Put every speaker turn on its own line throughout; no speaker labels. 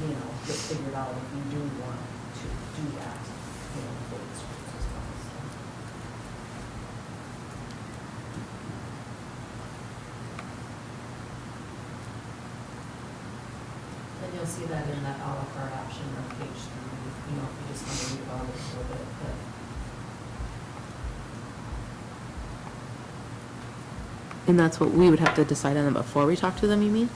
you know, get figured out if you do want to do that, you know, for the schools as well, so.
And you'll see that in that à la carte option on page three, you know, if you just want to read about it a little bit, but.
And that's what we would have to decide on them before we talk to them, you mean?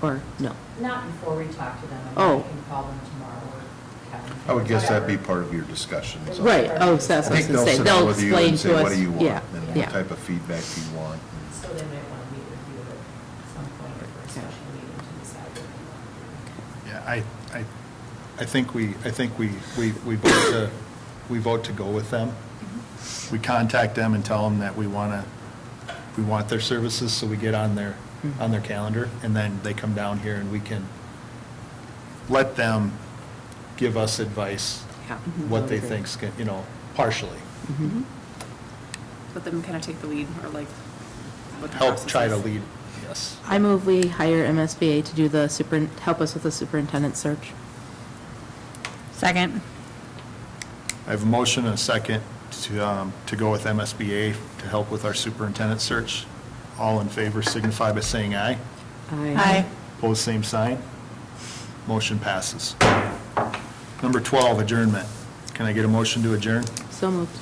Or no?
Not before we talk to them, I mean,
Oh.
I can call them tomorrow or Kevin.
I would guess that'd be
whatever.
part of your discussion. so.
Right, oh, so that's
I
what I was
think
gonna
they'll
say.
sit down
They'll
with you and
explain
say,
to
what
us.
do you want?
Yeah,
And
yeah.
what type of feedback do you want?
So they might want to meet with you at some point for a special meeting to decide what they want to do.
Yeah, I, I, I think we, I think we, we, we vote to, we vote to go with them. We contact them and tell them that we want to, we want their services, so we get on their, on their calendar, and then they come down here and we can let them give us advice,
Yeah.
Mm-hmm.
what they think's, gonna- you know, partially.
Mm-hmm.
Let them kind of take the lead or like. what the
Help
process
try to
is.
lead, yes.
I move we hire MSBA to do the super, help us with the superintendent search.
Second.
I have a motion and a second to, um, to go with MSBA to help with our superintendent search. All in favor signify by saying aye.
Aye.
Pose same sign. Motion passes. Number 12, adjournment. Can I get a motion to adjourn?
So moved.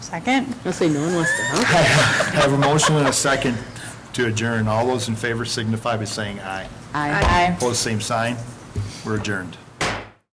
Second.
I'll say no one wants to help.
I have a motion and a second to adjourn. All those in favor signify by saying aye.
Aye.
Aye.
Pose same sign. We're adjourned.